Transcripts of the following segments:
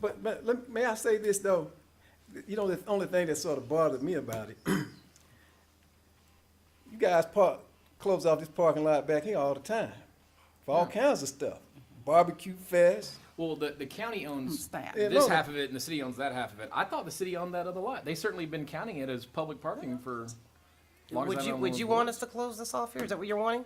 But, but let, may I say this though? You know, the only thing that sort of bothered me about it, you guys park, close off this parking lot back here all the time for all kinds of stuff, barbecue fest. Well, the, the county owns That. Yeah, this no. half of it and the city owns that half of it. I thought the city owned that other lot. They certainly been counting it as public parking for. long as Would I've you, been on would this you board. want us to close this off here? Is that what you're wanting?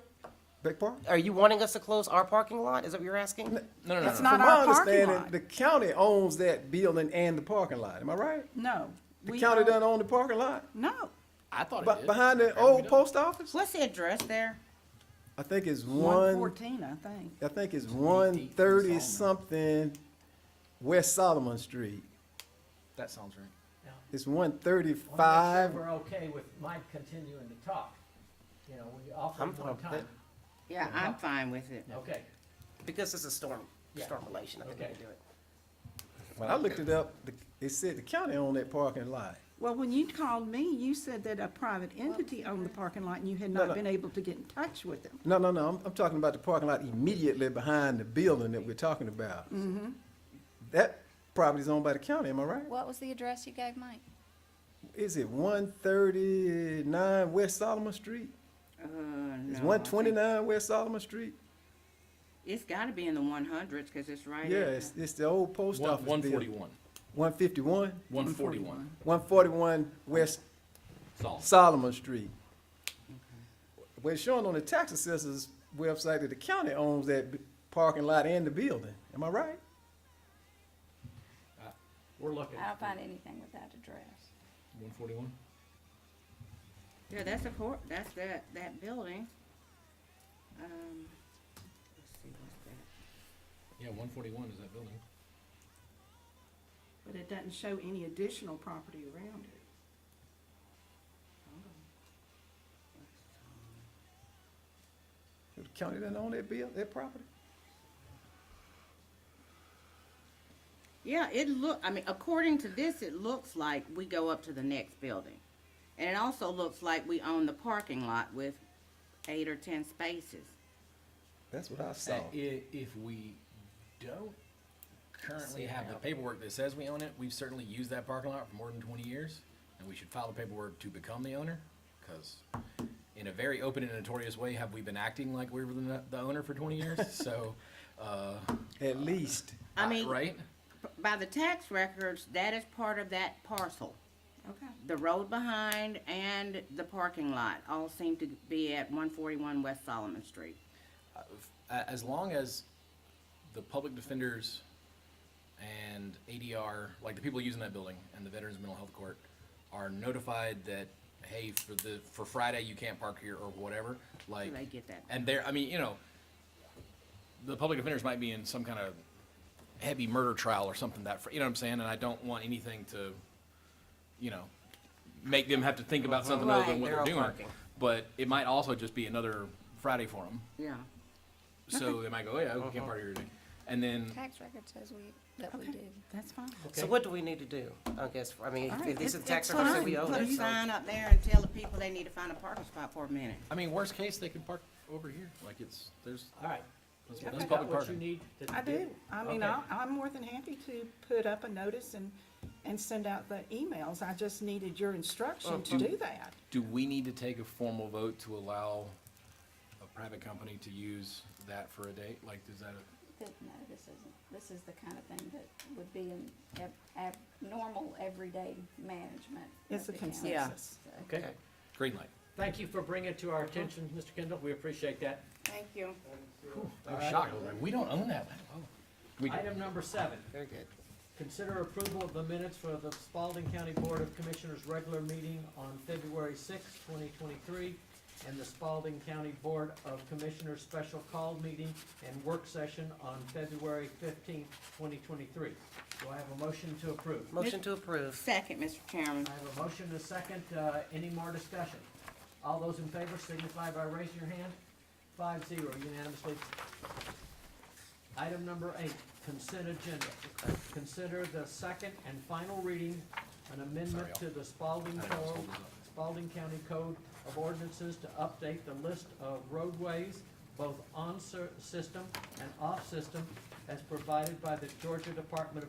Big park? Are you wanting us to close our parking lot? Is that what you're asking? No, no, no, It's no. not From our my parking understanding, lot. The county owns that building and the parking lot, am I right? No. The we county don't- doesn't own the parking lot? No. I thought it Be- did. Behind the Apparently old don't. post office? What's the address there? I think it's One one, fourteen, I think. I think it's one Twenty-eight from thirty Solomon. something West Solomon Street. That sounds right. It's one thirty-five. We're okay with Mike continuing to talk. You know, we offered I'm him fine one with that. time. Yeah, I'm fine with it. Okay, Because this is storm, Yeah. storm relation, I think we Okay. can do it. When I looked it up, the- it said the county owned that parking lot. Well, when you called me, you said that a private entity owned the parking lot and you had no. not been able to get in touch with them. No, no, no, I'm, I'm talking about the parking lot immediately behind the building that we're talking about. That property's owned by the county, am I right? What was the address you gave Mike? Is it one thirty-nine West Solomon Street? Uh, It's one twenty-nine West Solomon Street? It's gotta be in the one hundreds, cause it's right. at Yeah, the- it's, it's the old post One, office one building. forty-one, One fifty-one? one forty-one, One forty-one West solid. Solomon Street. Well, it's showing on the tax assessor's website that the county owns that b- parking lot and the building. Am I right? we're looking. I don't find anything with that address. One forty-one? Yeah, that's a hor, that's that, that building. Um, let's see, what's that? Yeah, one forty-one is that building. But it doesn't show any additional property around it. The county doesn't own that bill, that property? Yeah, it look, I mean, according to this, it looks like we go up to the next building. And it also looks like we own the parking lot with eight or ten spaces. That's what I Uh, saw. Oh. i- if we don't currently have the paperwork that says we own it, we've certainly used that parking lot for more than twenty years, and we should file the paperwork to become the owner, because in a very open and notorious way, have we been acting like we were the, the owner for twenty years, so, uh, At least. I mean, right? by the tax records, that is part of that parcel. Okay. The road behind and the parking lot all seem to be at one forty-one West Solomon Street. a- as long as the public defenders and ADR, like the people using that building and the Veterans Mental Health Court, are notified that, hey, for the, for Friday, you can't park here or whatever, like. they get that? And they're, I mean, you know, the public defenders might be in some kind of heavy murder trial or something that, fr- you know what I'm saying? And I don't want anything to, you know, make them have to think about something other than Right, what they're they're all doing. parking. But it might also just be another Friday for them. Yeah. So they might go, oh, yeah, we can't party here today. And then, Tax record says we, that we Okay. do. That's fine. So what do we need to do? I guess, I mean, All if- right, if these are it's- tax it's records that fine. we own, Put a so. sign up there and tell the people they need to find a parking spot for a minute. I mean, worst case, they could park over here. Like it's, there's, All right. that's, You that's got public What you parking. need to. I do. I mean, Okay. I, I'm more than happy to put up a notice and, and send out the emails. I just needed your instruction to do that. Do we need to take a formal vote to allow a private company to use that for a date? Like, is that a, That, no, this isn't, this is the kind of thing that would be in ab- ab- normal, everyday management. of It's a the county. consensus. So, Okay, green light? thank you for bringing it to our attention, Mr. Kendall. We appreciate that. Thank you. I'm shocked. I was like, We don't own that. Oh. We do. Item number seven, Very good. consider approval of the minutes for the Spalding County Board of Commissioners regular meeting on February sixth, twenty twenty-three, and the Spalding County Board of Commissioners special call meeting and work session on February fifteenth, twenty twenty-three. Do I have a motion to approve? Motion to approve. Second, Mr. Chairman. I have a motion and a second. Uh, Any more discussion? All those in favor signify by raising your hand. Five zero unanimously. Item number eight, consent agenda. Consider the second and final reading, an amendment to the Spalding I was Code, holding up. Spalding County Code of Ordinances to update the list of roadways, both on-system and off-system, as provided by the Georgia Department of